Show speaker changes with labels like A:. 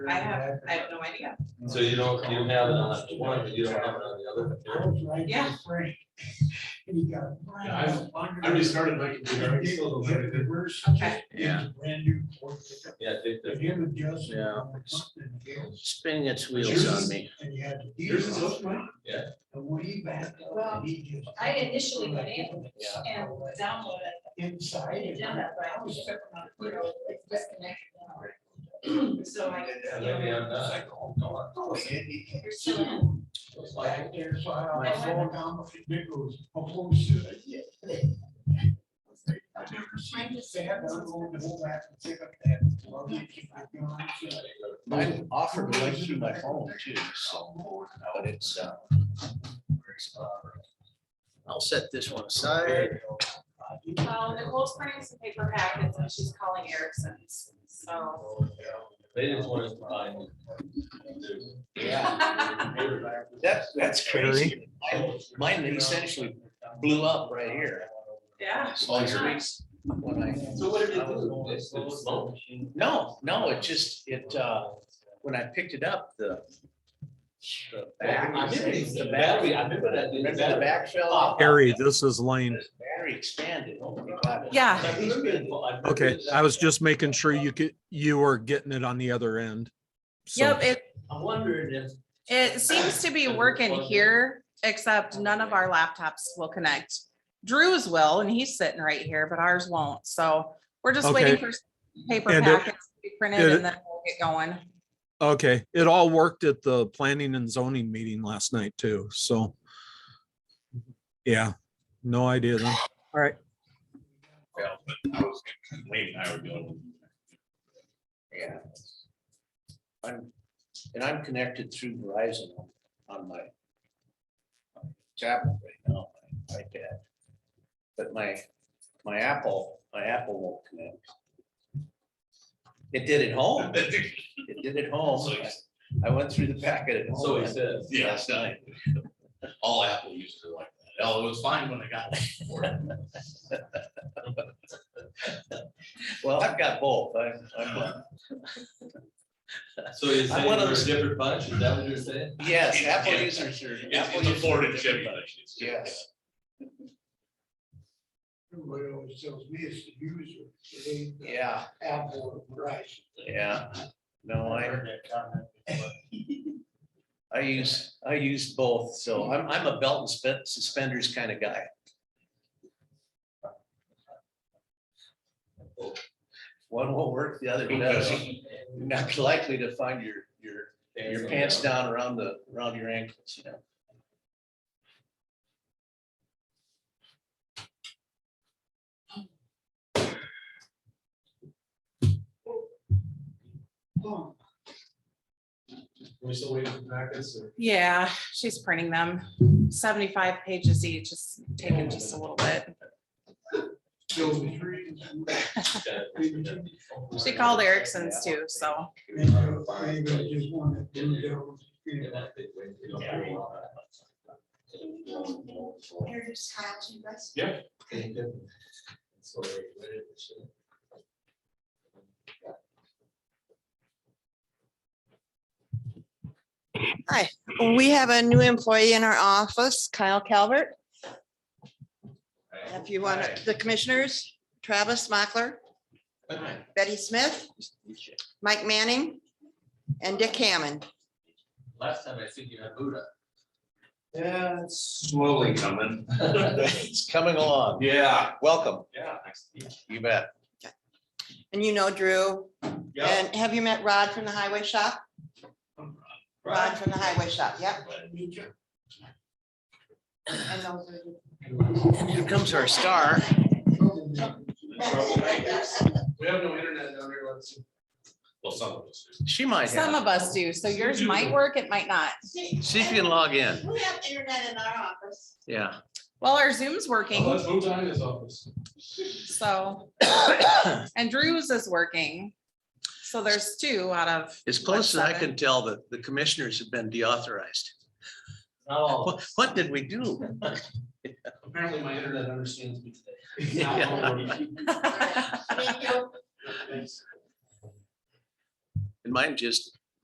A: I have, I have no idea.
B: So you don't, you have it on one, but you don't have it on the other.
A: Yeah.
C: Yeah, I've- I restarted my computer.
A: Okay.
D: Yeah.
C: Brand new. Ford pickup.
B: Yeah, I think
C: If
B: that,
C: you have just-
D: Yeah.
C: something else,
D: Spinning its
C: Yours
D: wheels
C: is-
D: on me.
C: And you had to.
B: Yours is open, Yeah.
C: And we backed up.
E: Well,
C: and he just-
E: I initially went in. and download it.
C: Inside. and-
E: Agenda, but I was just, you know, it's disconnected. So I.
B: and maybe I'm
C: It's
B: not.
C: like, oh, God, oh, it-
E: You're still.
C: It's like there, so I I fall down, my dick goes, oh, oh, shit, I did. I've never seen this. They have to go and go back and pick up that. glove and keep it going, so I go,
D: I offered to link through my phone too, so, but it's, uh. I'll set this one aside.
A: Well, Nicole's printing some paper packets and she's calling Erickson's,
C: Oh,
A: so.
B: They just want us to find.
D: Yeah, that's, that's crazy. Mine- Mine essentially blew up right here.
A: Yeah.
D: When I-
B: So what did it do? It's the smoke.
D: No, no, it just, it, uh, when I picked it up, the. the back-
B: I remember it's the
D: the
B: battery, I remember that.
D: Remember the back fell off?
F: Harry, this is Lane.
D: The Battery expanded. Oh my God.
A: Yeah.
B: I remember it, but I remember
F: Okay,
B: that-
F: I was just making sure you could, you were getting it on the other end. So-
A: Yep, it,
B: I wondered if.
A: it seems to be working here, except none of our laptops will connect. Drew's will, and he's sitting right here, but ours won't, so we're just waiting
F: Okay.
A: for paper
F: And it-
A: packets to be printed
F: it-
A: and then we'll get going.
F: Okay, it all worked at the planning and zoning meeting last night too, so. Yeah, no idea then.
G: Wait, I would go.
D: Yeah. I'm, and I'm connected through Verizon on- on my my tablet right now, my iPad. But my, my Apple, my Apple won't connect. It did at home. It did at home.
G: So he's-
D: I went through the packet at
B: So
D: home.
B: he says.
G: Yeah, that's not, all Apple users are like that. Oh, it was fine when I got it.
D: Well, I've got both. I,
G: Uh,
D: I'm,
B: So you're saying
D: one of
B: we're a
D: those-
B: different bunch, is that what you're saying?
D: yes, Apple users are.
G: It's
D: Apple
G: it's a
D: users
G: Ford
D: are
G: and Chevy
D: different,
G: thing.
D: but
G: It's-
D: Yes.
C: Everybody always tells me it's the user, it ain't the
D: Yeah,
C: Apple or Verizon.
D: yeah. No, I. I use, I use both, so I'm, I'm a belt and spen- suspenders kind of guy. One will work, the other doesn't. You're not likely to find your, your, your pants down around the, around your ankles, you know.
B: We still waiting for packets or?
A: Yeah, she's printing them, seventy-five pages each, it's taking just a little bit.
C: So the three.
A: She called Erickson's too, so.
C: Maybe I just wanna do those, you know.
G: Yeah.
H: We have a new employee in our office, Kyle Calvert. If you want, the commissioners, Travis Mockler, Betty Smith, Mike Manning, and Dick Hammond.
B: Last time I think you had Buddha.
G: Yeah, it's slowly coming.
D: It's coming along.
G: Yeah.
D: Welcome,
G: Yeah.
D: you bet.
H: And you know Drew. And have you met Rod from the highway shop? Rod from the highway shop, yep. And those are the-
D: Here comes our star.
G: We have no internet down here, let's. Well, some of us. do.
D: She might
A: Some
D: have,
A: of us do, so yours might work, it might not.
D: see if you can log in,
H: We have internet in our office.
D: yeah.
A: Well, our Zoom's working,
G: Let's move on to his office.
A: so, and Drew's is working. So there's two out of,
D: As close as I
A: seven?
D: can tell, the, the commissioners have been deauthorized.
B: Oh,
D: What, what did we do?
G: Apparently my internet understands me today.
D: Yeah.
H: Thank you.
G: Thanks.
D: And mine just